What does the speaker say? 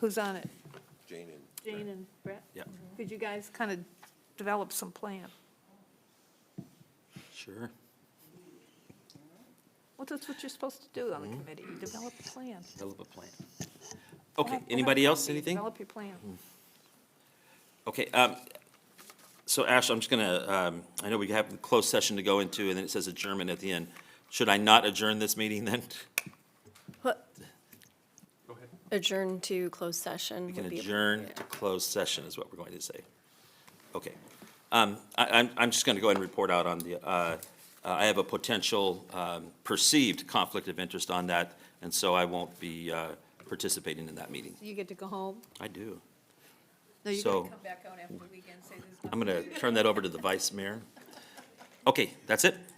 Who's on it? Jane and Jane and Brett? Mm-hmm. Yep. Could you guys kind of develop some plan? Sure. Well, that's what you're supposed to do Mm-hmm. on the committee, you develop a plan. Develop a plan. Okay, anybody else, anything? Develop your plan. Okay, um, so Ash, I'm just gonna, um, I know we have a closed session to go into, and then it says adjournment at the end. Should I not adjourn this meeting then? Adjourn to closed session. We can would be adjourn appropriate. to closed session is what we're going to say. Okay. Um, I, I'm, I'm just gonna go ahead and report out on the, uh, I have a potential, um, perceived conflict of interest on that, and so I won't be, uh, participating in that meeting. You get to go home? I do. No, you So- gotta Come back out after the weekend, say there's I'm going to turn that over to the vice mayor. Okay, that's it.